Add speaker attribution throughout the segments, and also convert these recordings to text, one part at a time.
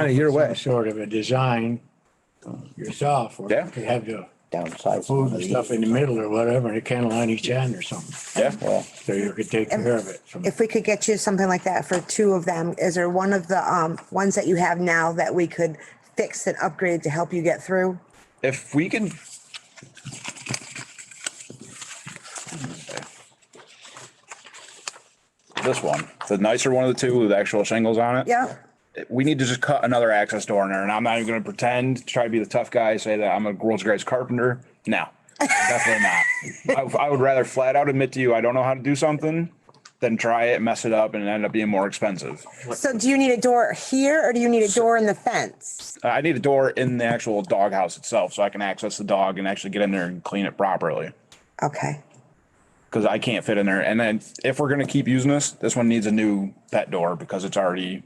Speaker 1: kind of your
Speaker 2: some
Speaker 1: way.
Speaker 2: sort of a design yourself, or
Speaker 3: Yeah.
Speaker 2: you could have the
Speaker 4: downsize.
Speaker 2: food and stuff in the middle or whatever, and a kennel on each end or something,
Speaker 3: Yeah,
Speaker 4: Well,
Speaker 2: so you could take care of it. So
Speaker 5: If we could get you something like that for two of them, is there one of the um ones that you have now that we could fix and upgrade to help you get through?
Speaker 3: if we can. This one, the nicer one of the two with actual shingles on it.
Speaker 5: Yeah,
Speaker 3: We need to just cut another access door in there and I'm not even gonna pretend, try to be the tough guy, say that I'm a world's greatest carpenter. No, definitely not. I, I would rather flat out admit to you, I don't know how to do something than try it, mess it up and end up being more expensive.
Speaker 5: so do you need a door here or do you need a door in the fence?
Speaker 3: Uh, I I need a door in the actual dog house itself so I can access the dog and actually get in there and clean it properly.
Speaker 5: Okay,
Speaker 3: because I can't fit in there. And then if we're gonna keep using this, this one needs a new pet door because it's already,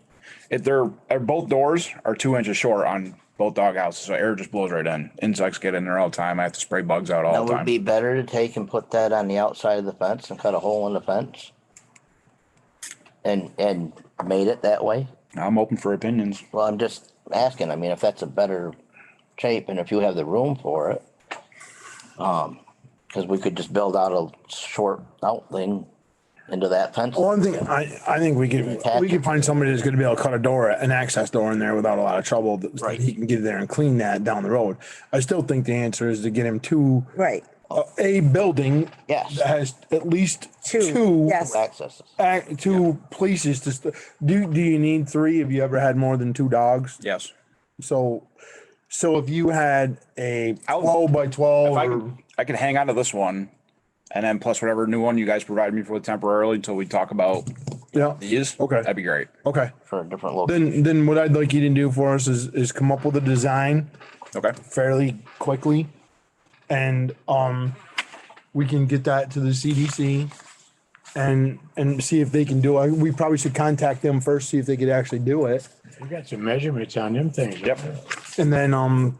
Speaker 3: if they're, uh, both doors are two inches short on both dog houses, so air just blows right in. Insects get in there all the time. I have to spray bugs out all
Speaker 4: that
Speaker 3: the
Speaker 4: would
Speaker 3: time.
Speaker 4: be better to take and put that on the outside of the fence and cut a hole in the fence. And, and made it that way.
Speaker 3: I'm open for opinions.
Speaker 4: Well, I'm just asking, I mean, if that's a better shape and if you have the room for it. Um, cause we could just build out a short outling into that fence.
Speaker 1: One thing, I, I think we could, we could find somebody that's gonna be able to cut a door, an access door in there without a lot of trouble. that- that He can get there and clean that down the road. I still think the answer is to get him to
Speaker 5: right,
Speaker 1: a- a building.
Speaker 4: Yes.
Speaker 1: That has at least
Speaker 5: two,
Speaker 1: two,
Speaker 5: yes.
Speaker 4: Accesses.
Speaker 1: ac- two places to, st- do, do you need three? Have you ever had more than two dogs?
Speaker 3: Yes.
Speaker 1: So, so if you had a
Speaker 3: I would-
Speaker 1: twelve by twelve
Speaker 3: If I
Speaker 1: or
Speaker 3: could, I could hang on to this one and then plus whatever new one you guys provide me for temporarily until we talk about
Speaker 1: Yeah.
Speaker 3: these.
Speaker 1: Okay.
Speaker 3: That'd be great.
Speaker 1: Okay.
Speaker 4: for a different location.
Speaker 1: Then, then what I'd like you to do for us is, is come up with a design
Speaker 3: Okay.
Speaker 1: fairly quickly. And, um, we can get that to the CDC and, and see if they can do it. We probably should contact them first, see if they could actually do it.
Speaker 2: we got some measurements on them things.
Speaker 3: Yep.
Speaker 1: And then, um,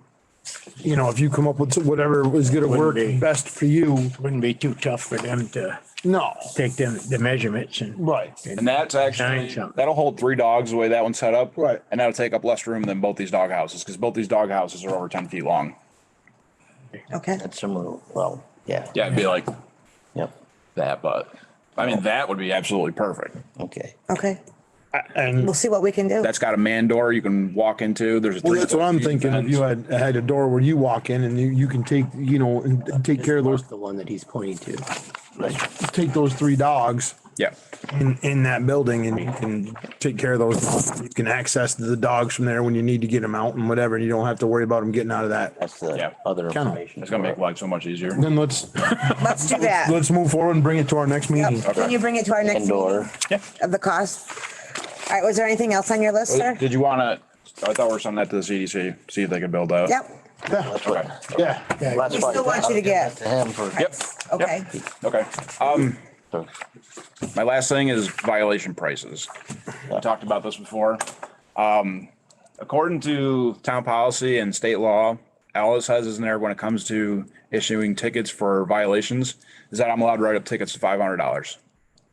Speaker 1: you know, if you come up with whatever is gonna work
Speaker 2: Wouldn't be.
Speaker 1: best for you,
Speaker 2: Wouldn't be too tough for them to
Speaker 1: no.
Speaker 2: take them, the measurements and.
Speaker 1: Right.
Speaker 3: And that's actually,
Speaker 2: Giant jump.
Speaker 3: that'll hold three dogs the way that one's set up.
Speaker 1: Right.
Speaker 3: And that'll take up less room than both these dog houses because both these dog houses are over 10 feet long.
Speaker 5: okay.
Speaker 4: That's similar, well, yeah,
Speaker 3: Yeah, it'd be like
Speaker 4: yep,
Speaker 3: that, but I mean, that would be absolutely perfect.
Speaker 4: okay.
Speaker 5: Okay,
Speaker 1: And
Speaker 5: we'll see what we can do.
Speaker 3: That's got a man door you can walk into. There's a.
Speaker 1: Well, that's what I'm
Speaker 3: three-foot
Speaker 1: thinking. If you
Speaker 3: fence.
Speaker 1: had, had a door where you walk in and you, you can take, you know, and take care of those,
Speaker 6: The one that he's pointing to.
Speaker 1: take those three dogs
Speaker 3: Yeah,
Speaker 1: in, in that building and you can take care of those. You can access the dogs from there when you need to get them out and whatever. You don't have to worry about them getting out of that.
Speaker 4: That's
Speaker 3: Yeah.
Speaker 4: the other
Speaker 1: Kennel.
Speaker 4: information.
Speaker 3: it's gonna make life so much easier.
Speaker 1: Then let's,
Speaker 5: Let's do that.
Speaker 1: let's move forward and bring it to our next meeting.
Speaker 5: Yep. Can you bring it to our next
Speaker 4: Indoor,
Speaker 5: meeting of the cost? All right, was there anything else on your list, sir?
Speaker 3: Did you wanna, I thought we were sending that to the CDC, see if they could build that.
Speaker 5: Yep,
Speaker 4: that's
Speaker 3: Okay.
Speaker 4: what.
Speaker 1: Yeah.
Speaker 4: that's
Speaker 5: We
Speaker 4: what-
Speaker 5: still want you to get-
Speaker 4: To him for.
Speaker 3: Yep.
Speaker 5: okay.
Speaker 3: Okay. Um,
Speaker 4: for-
Speaker 3: my last thing is violation prices. We talked about this before. Um, according to town policy and state law, Alice has is in there when it comes to issuing tickets for violations, is that I'm allowed to write up tickets to five hundred dollars.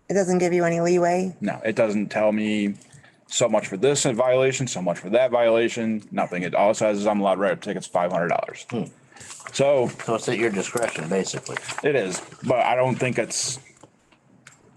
Speaker 5: It doesn't give you any leeway.
Speaker 3: No, it doesn't tell me so much for this violation, so much for that violation, nothing. It all says is I'm allowed to write up tickets five hundred dollars. So
Speaker 4: So it's at your discretion, basically.
Speaker 3: it is, but I don't think it's,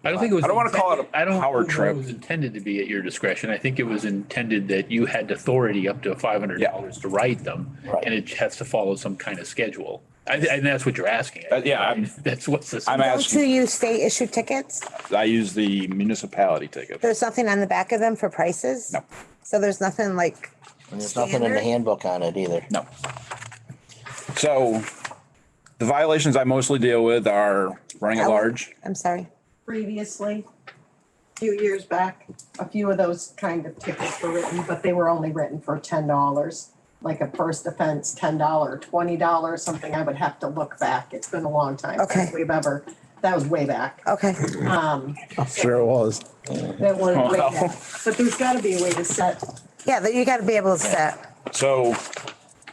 Speaker 7: I don't think it was.
Speaker 3: I don't wanna call it a
Speaker 7: I don't
Speaker 3: power
Speaker 7: know if
Speaker 3: trip.
Speaker 7: It was intended to be at your discretion. I think it was intended that you had authority up to five hundred dollars to write them, and it has to follow some kind of schedule. I, thi- and that's what you're asking.
Speaker 3: Uh, yeah, I'm-
Speaker 7: That's what's this.
Speaker 3: I'm
Speaker 5: Don't you
Speaker 3: asking,
Speaker 5: use state issued tickets?
Speaker 3: I use the municipality ticket.
Speaker 5: There's nothing on the back of them for prices?
Speaker 3: No.
Speaker 5: So there's nothing like,
Speaker 4: And there's nothing in the
Speaker 5: Standard?
Speaker 4: handbook on it either.
Speaker 3: No. So the violations I mostly deal with are running at
Speaker 5: Alan?
Speaker 3: large.
Speaker 5: I'm sorry.
Speaker 8: previously, a few years back, a few of those kind of tickets were written, but they were only written for ten dollars. Like a first offense, ten dollar, twenty dollar, something I would have to look back. It's been a long time since
Speaker 5: Okay.
Speaker 8: we've ever, that was way back.
Speaker 5: Okay,
Speaker 8: Um,
Speaker 1: I'm sure it was.
Speaker 8: that was way
Speaker 3: Wow.
Speaker 8: back. But there's gotta be a way to set,
Speaker 5: yeah, that you gotta be able to set,
Speaker 3: So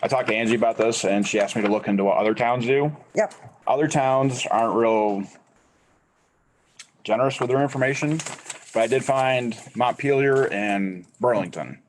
Speaker 3: I talked to Angie about this and she asked me to look into what other towns do.
Speaker 5: yep,
Speaker 3: other towns aren't real generous with their information, but I did find Montpelier and Burlington.